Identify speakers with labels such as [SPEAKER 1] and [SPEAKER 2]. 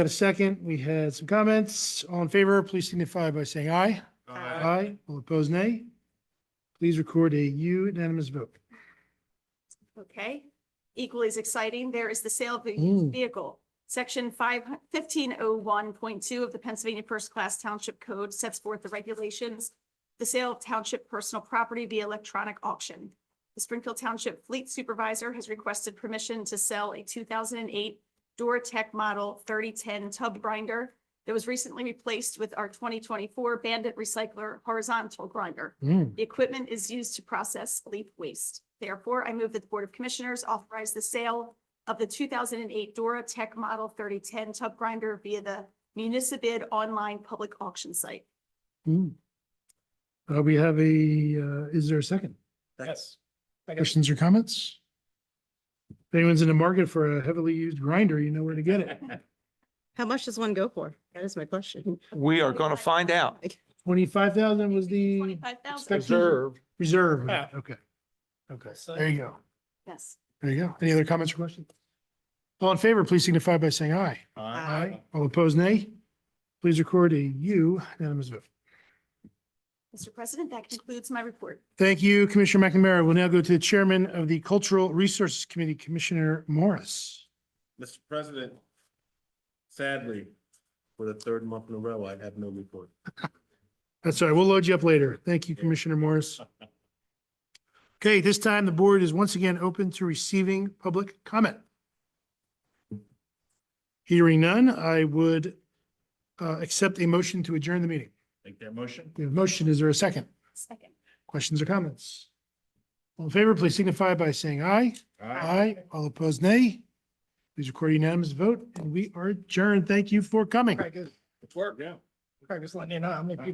[SPEAKER 1] Got a second. We had some comments. All in favor, please signify by saying aye. Aye. All opposed, nay. Please record a unanimous vote.
[SPEAKER 2] Okay, equally as exciting, there is the sale of a
[SPEAKER 1] Mm.
[SPEAKER 2] used vehicle. Section five, fifteen oh one point two of the Pennsylvania First Class Township Code sets forth the regulations. The sale of township personal property via electronic auction. The Springfield Township Fleet Supervisor has requested permission to sell a two thousand and eight DoorTech model thirty-ten tub grinder that was recently replaced with our twenty twenty-four Bandit Recycler horizontal grinder.
[SPEAKER 1] Mm.
[SPEAKER 2] The equipment is used to process leaf waste. Therefore, I move that the Board of Commissioners authorize the sale of the two thousand and eight Dora Tech Model thirty-ten tub grinder via the Municipid online public auction site.
[SPEAKER 1] Mm. Uh, we have a, uh, is there a second?
[SPEAKER 3] Yes.
[SPEAKER 1] Questions or comments? If anyone's in the market for a heavily used grinder, you know where to get it.
[SPEAKER 4] How much does one go for? That is my question.
[SPEAKER 5] We are going to find out.
[SPEAKER 1] Twenty-five thousand was the
[SPEAKER 2] Twenty-five thousand,
[SPEAKER 1] expected reserve.
[SPEAKER 3] Yeah.
[SPEAKER 1] Okay. Okay, there you go.
[SPEAKER 2] yes.
[SPEAKER 1] There you go. Any other comments or questions? All in favor, please signify by saying aye.
[SPEAKER 4] Aye.
[SPEAKER 1] All opposed, nay. Please record a unanimous vote.
[SPEAKER 2] Mr. President, that concludes my report.
[SPEAKER 1] Thank you, Commissioner McNamara. We'll now go to the Chairman of the Cultural Resources Committee, Commissioner Morris.
[SPEAKER 3] Mr. President, sadly, for the third month in a row, I have no report.
[SPEAKER 1] That's all right. We'll load you up later. Thank you, Commissioner Morris. Okay, this time the board is once again open to receiving public comment. Hearing none, I would uh, accept a motion to adjourn the meeting.
[SPEAKER 3] Make that motion?
[SPEAKER 1] We have a motion. Is there a second?
[SPEAKER 2] Second.
[SPEAKER 1] Questions or comments? All in favor, please signify by saying aye. Aye. All opposed, nay. Please record a unanimous vote, and we are adjourned. Thank you for coming.
[SPEAKER 3] It's work. Yeah.
[SPEAKER 6] I'm just letting you know how many people